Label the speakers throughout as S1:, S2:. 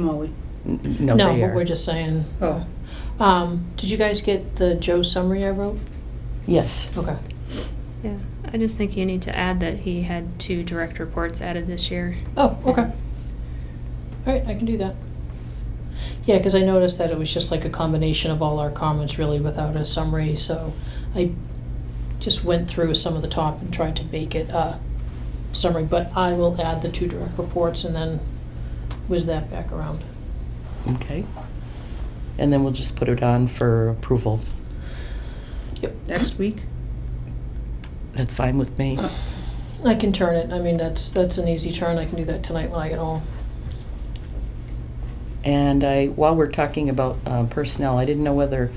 S1: Molly.
S2: N- No,
S3: No,
S2: they
S3: but
S2: are.
S3: we're just saying.
S1: Oh.
S3: Um, did you guys get the Joe summary I wrote?
S2: Yes.
S3: Okay.
S4: Yeah, I just think you need to add that he had two direct reports added this year.
S3: Oh, okay. All right, I can do that. Yeah, because I noticed that it was just like a combination of all our comments really without a summary, so I just went through some of the top and tried to make it a summary, but I will add the two direct reports and then whiz that back around.
S2: Okay. And then we'll just put it on for approval.
S3: Yep.
S1: Next week?
S2: That's fine with me.
S3: I can turn it. I mean, that's, that's an easy turn. I can do that tonight when I get home.
S2: And I, while we're talking about uh, personnel, I didn't know whether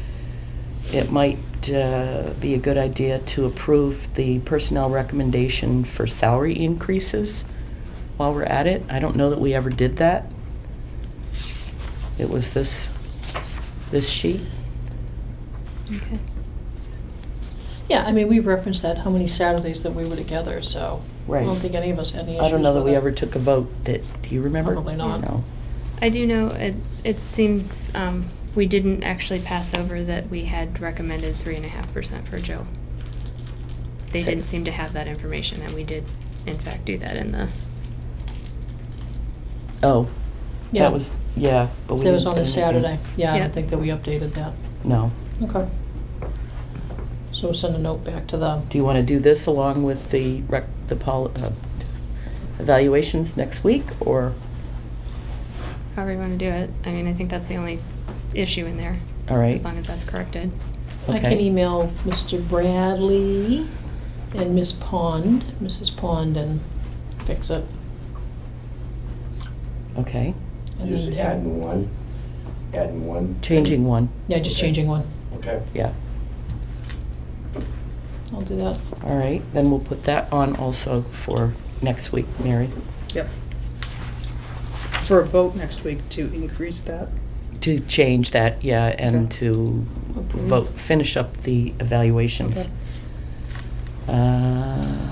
S2: it might uh, be a good idea to approve the personnel recommendation for salary increases while we're at it. I don't know that we ever did that. It was this, this sheet.
S4: Okay.
S3: Yeah, I mean, we referenced that, how many Saturdays that we were together, so. I
S2: Right.
S3: don't think any of us had any issues
S2: I don't know that we
S3: with it.
S2: ever took a vote that, do you remember?
S3: Probably not.
S2: No.
S4: I do know, it, it seems, um, we didn't actually pass over that we had recommended three and a half percent for Joe. They
S2: So-
S4: didn't seem to have that information, and we did in fact do that in the,
S2: Oh,
S3: Yeah,
S2: that was, yeah. but we
S3: That was
S2: didn't
S3: on a
S2: do anything.
S3: Saturday. Yeah, I
S4: Yeah.
S3: don't think that we updated that.
S2: No.
S3: Okay. So we'll send a note back to them.
S2: Do you want to do this along with the rec, the pol, uh, evaluations next week, or,
S4: however you wanna do it. I mean, I think that's the only issue in there.
S2: all right?
S4: As long as that's corrected.
S3: I can
S2: Okay.
S3: email Mr. Bradley and Miss Pond, Mrs. Pond, and fix it.
S2: Okay,
S3: And
S5: Just
S3: then-
S5: adding one, adding one.
S2: changing one,
S3: Yeah, just changing one.
S5: Okay.
S2: yeah,
S3: I'll do that.
S2: all right, then we'll put that on also for next week, Mary,
S1: Yep. For a vote next week to increase that.
S2: to change that, yeah, and
S1: Okay.
S2: to
S3: Approve.
S2: vote, finish up the evaluations. Um,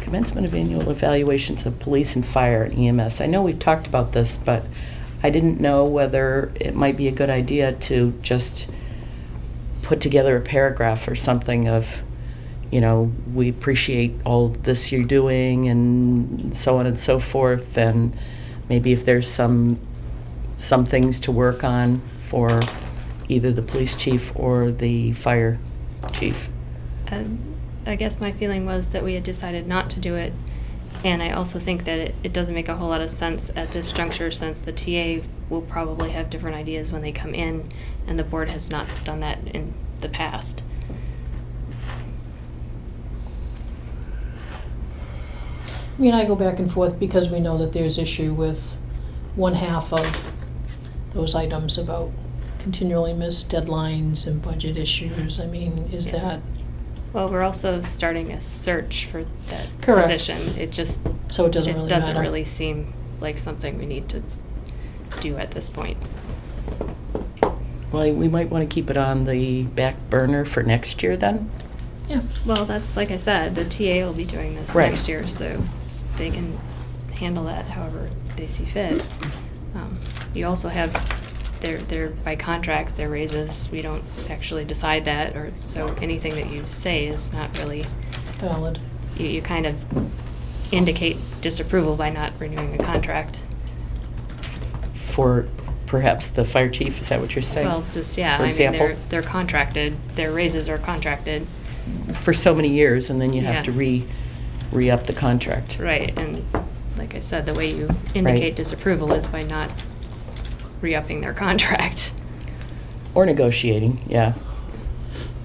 S2: Commencement of annual evaluations of police and fire and EMS. I know we've talked about this, but I didn't know whether it might be a good idea to just put together a paragraph or something of, you know, we appreciate all this you're doing and so on and so forth, and maybe if there's some, some things to work on for either the police chief or the fire chief.
S4: Um, I guess my feeling was that we had decided not to do it, and I also think that it, it doesn't make a whole lot of sense at this juncture, since the TA will probably have different ideas when they come in, and the board has not done that in the past.
S3: I mean, I go back and forth because we know that there's issue with one half of those items about continually missed deadlines and budget issues. I mean, is that,
S4: Well, we're also starting a search for that
S3: Correct.
S4: position. It just,
S3: so it doesn't really
S4: it
S3: matter.
S4: doesn't really seem like something we need to do at this point.
S2: Well, we might want to keep it on the back burner for next year then.
S3: Yeah,
S4: Well, that's, like I said, the TA will be doing this
S2: Right.
S4: next year, so they can handle that however they see fit. Um, You also have, their their by contract, their raises, we don't actually decide that, or, so anything that you say is not really,
S3: valid.
S4: you, you kind of indicate disapproval by not renewing a contract.
S2: For perhaps the fire chief, is that what you're saying?
S4: Well, just, yeah,
S2: For
S4: I mean, they're,
S2: example?
S4: they're contracted, their raises are contracted,
S2: For so many years, and then you have
S4: Yeah.
S2: to re, re-up the contract.
S4: Right, and like I said, the way you indicate disapproval is by not re-upping their contract.
S2: Or negotiating, yeah.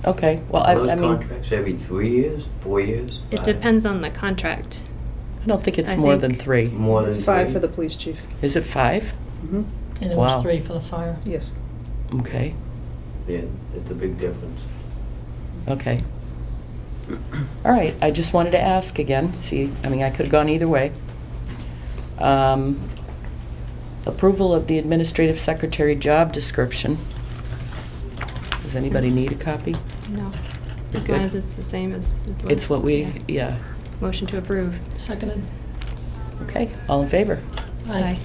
S2: Okay, well, I, I
S6: Those
S2: mean,
S6: contracts every three years, four years?
S4: It
S6: five?
S4: depends on the contract.
S2: I don't think it's
S4: I
S2: more
S4: think-
S2: than three.
S6: More than
S1: It's five
S6: three?
S1: for the police chief.
S2: Is it five?
S1: Mm-hmm.
S3: And it was
S2: Wow.
S3: three for the fire.
S1: Yes.
S2: Okay,
S6: Yeah, that's a big difference.
S2: okay. All right, I just wanted to ask again, see, I mean, I could've gone either way. Um, Approval of the administrative secretary job description. Does anybody need a copy?
S4: No.
S2: You're
S4: As long
S2: good.
S4: as it's the same as. it
S2: It's
S4: was,
S2: what we, e-
S4: yeah.
S2: yeah,
S4: Motion to approve.
S3: Seconded.
S2: okay, all in favor?
S4: Aye.